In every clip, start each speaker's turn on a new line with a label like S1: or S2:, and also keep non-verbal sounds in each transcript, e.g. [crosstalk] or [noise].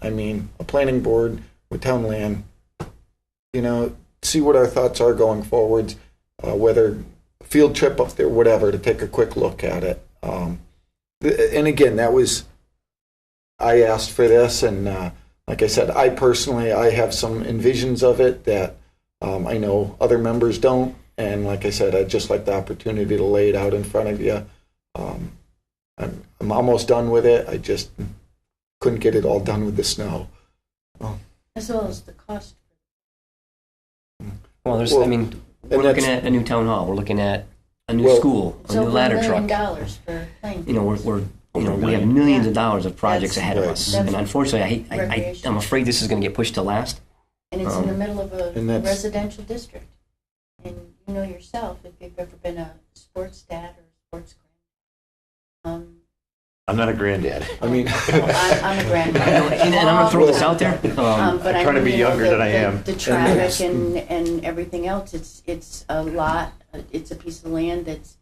S1: I mean, a planning board with town land. You know, see what our thoughts are going forwards, uh, whether field trip up there, whatever, to take a quick look at it. Um, th- and again, that was, I asked for this, and uh, like I said, I personally, I have some envisions of it that um, I know other members don't. And like I said, I'd just like the opportunity to lay it out in front of you. Um, I'm, I'm almost done with it. I just couldn't get it all done with the snow.
S2: as well as the cost.
S3: Well, there's, I
S1: Well,
S3: mean, we're
S1: and
S3: looking
S1: that's-
S3: at a new town hall, we're looking at a new
S1: Well-
S3: school, a
S2: So
S3: new
S2: for a
S3: ladder
S2: million
S3: truck.
S2: dollars for playing.
S3: You know, we're, we're, you know,
S4: Over a
S3: we have
S4: million.
S3: millions
S2: Yeah.
S3: of dollars of projects
S2: That's-
S3: ahead of
S1: Right.
S3: us.
S2: That's
S3: And unfortunately, I, I- I,
S2: recreation.
S3: I'm afraid this is gonna get pushed
S1: [laughs]
S3: to last.
S2: And it's in the
S3: um,
S2: middle of a
S1: and that's-
S2: residential district. And you know yourself, if you've ever been a sports dad or sports grand. um,
S4: I'm not a granddad.
S1: I mean,
S2: [laughs] I'm I'm a
S1: [laughs]
S3: And
S2: grandmother.
S3: and I'm gonna throw this out there,
S2: Um,
S3: um,
S2: but I
S4: I'm trying to
S2: mean,
S4: be
S2: you know,
S4: younger
S2: the-
S4: than I
S2: the-
S4: am.
S2: The traffic and, and everything else, it's, it's a lot, it's a piece of land that's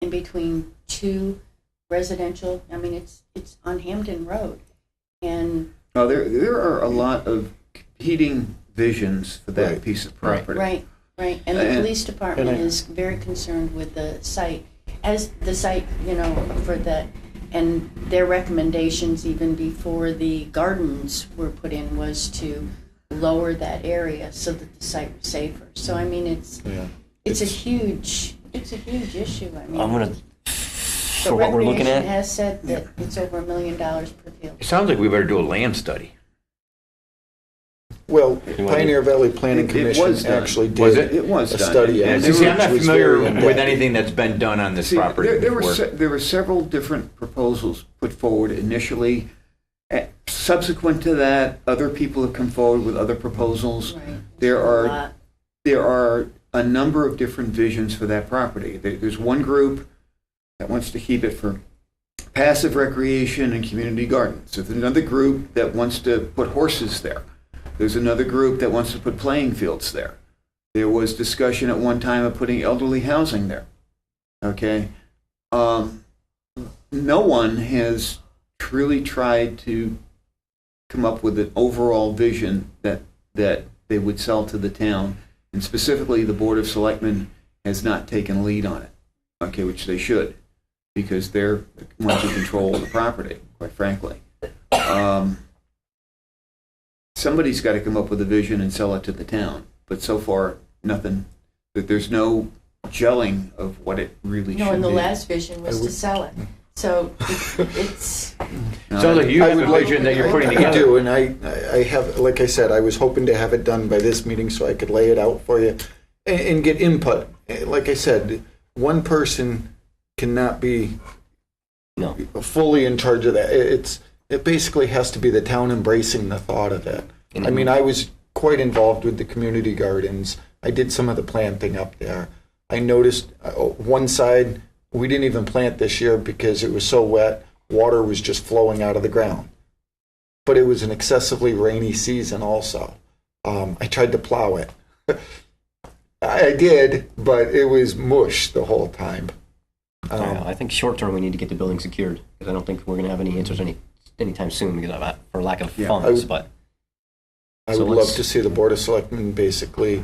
S2: in between two residential, I mean, it's, it's on Hampton Road. And,
S5: Now, there, there are a lot of competing visions for that
S1: Right.
S5: piece of
S3: Right.
S5: property.
S2: right, right, and the
S5: And-
S2: police department
S1: and I-
S2: is very concerned with the site, as the site, you know, for that, and their recommendations even before the gardens were put in was to lower that area so that the site was safer. So, I mean, it's,
S1: yeah.
S2: It's a huge, it's a huge issue, I mean.
S3: I'm gonna,
S2: the
S3: for what we're looking
S2: Recreation
S3: at,
S2: has said that it's over a million dollars per field.
S4: It sounds like we better do a land study.
S1: Well,
S3: You want
S1: Pioneer Valley Planning
S5: It- it was
S1: Commission
S5: done.
S1: actually
S4: Was
S1: did
S4: it?
S1: a
S5: It was done.
S1: study.
S5: And
S1: on
S5: there
S1: it,
S4: See, I'm not
S1: which was
S4: familiar
S1: very in-depth.
S4: with anything that's been done on this
S5: See,
S4: property
S5: there, there were
S4: before.
S5: se- there were several different proposals put forward initially. Eh, Subsequent to that, other people have come forward with other proposals.
S2: Right.
S5: There
S2: It's a
S5: are
S2: lot.
S5: there are a number of different visions for that property. There, there's one group that wants to keep it for passive recreation and community gardens. There's another group that wants to put horses there. There's another group that wants to put playing fields there. There was discussion at one time of putting elderly housing there. Okay? Um, no one has truly tried to come up with an overall vision that, that they would sell to the town. And specifically, the Board of Selectmen has not taken lead on it, okay, which they should, because they're the ones who control the property, quite frankly. Um, Somebody's got to come up with a vision and sell it to the town, but so far, nothing, that there's no gelling of what it really should be.
S2: No, and the last vision was
S1: I
S2: to
S1: would-
S2: sell it, so it- it's,
S5: No,
S4: Sounds like you
S1: I
S4: have
S1: would
S4: a
S1: like-
S4: vision that you're putting
S1: I do,
S4: together.
S1: and I, I- I have, like I said, I was hoping to have it done by this meeting so I could lay it out for you and, and get input. Eh, Like I said, one person cannot be
S3: no.
S1: fully in charge of that. It- It's, it basically has to be the town embracing the thought of it. I mean, I was quite involved with the community gardens. I did some of the planting up there. I noticed uh, one side, we didn't even plant this year because it was so wet, water was just flowing out of the ground. But it was an excessively rainy season also. Um, I tried to plow it. [laughs] I I did, but it was mush the whole time.
S3: I don't know.
S1: Um,
S3: I think short term, we need to get the building secured, because I don't think we're gonna have any answers any, anytime soon because of, that- for lack of
S5: Yeah, I
S3: funds,
S1: would-
S3: but.
S1: I
S3: Oh, So
S1: would love
S3: let's-
S1: to see the Board of Selectmen basically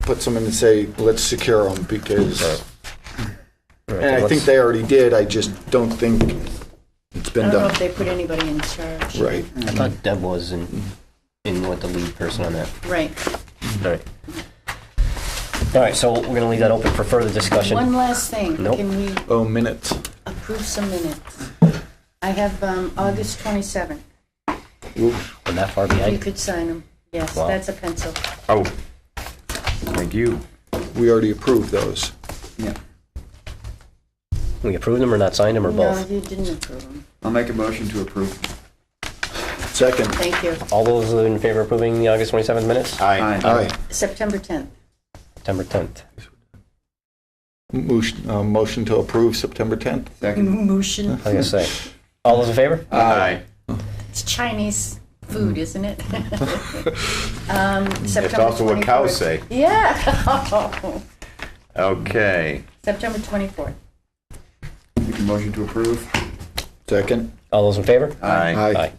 S1: put someone and say, let's secure them because And I think they already did, I just don't think it's
S2: I
S1: been
S2: don't know
S1: done
S2: if they put anybody in charge.
S1: right.
S3: I thought Deb was in, in what the lead person on that.
S2: Right.
S3: All right. All right, so we're gonna leave that open for further discussion.
S2: One last thing,
S3: Nope.
S2: can we
S1: Oh, minutes.
S2: approve some minutes? I have um, August 27th,
S3: We're that far
S2: if you
S3: behind.
S2: could sign them. Yes,
S3: Wow.
S2: that's a pencil.
S4: Oh, thank you.
S1: We already approved those.
S5: Yeah.
S3: We approved them or not signed them or
S2: No,
S3: both?
S2: you didn't approve them,
S5: I'll make a motion to approve.
S1: Second.
S2: thank you.
S3: All those in favor of approving the August 27th minutes?
S4: Aye.
S1: Aye.
S2: September 10th,
S3: September 10th.
S1: Motion, uh, motion to approve September 10th.
S5: Second.
S2: motion,
S3: I was gonna say. All those in favor?
S4: Aye.
S2: It's Chinese food,
S3: Hmm.
S2: isn't
S3: [laughs]
S2: it? um,
S4: It's
S2: September
S4: also what
S2: 24th.
S4: cows say.
S2: Yeah. [laughs] Oh.
S4: Okay.
S2: September 24th.
S5: Make a motion to approve.
S1: Second.
S3: All those in favor?
S1: Aye.
S3: Aye.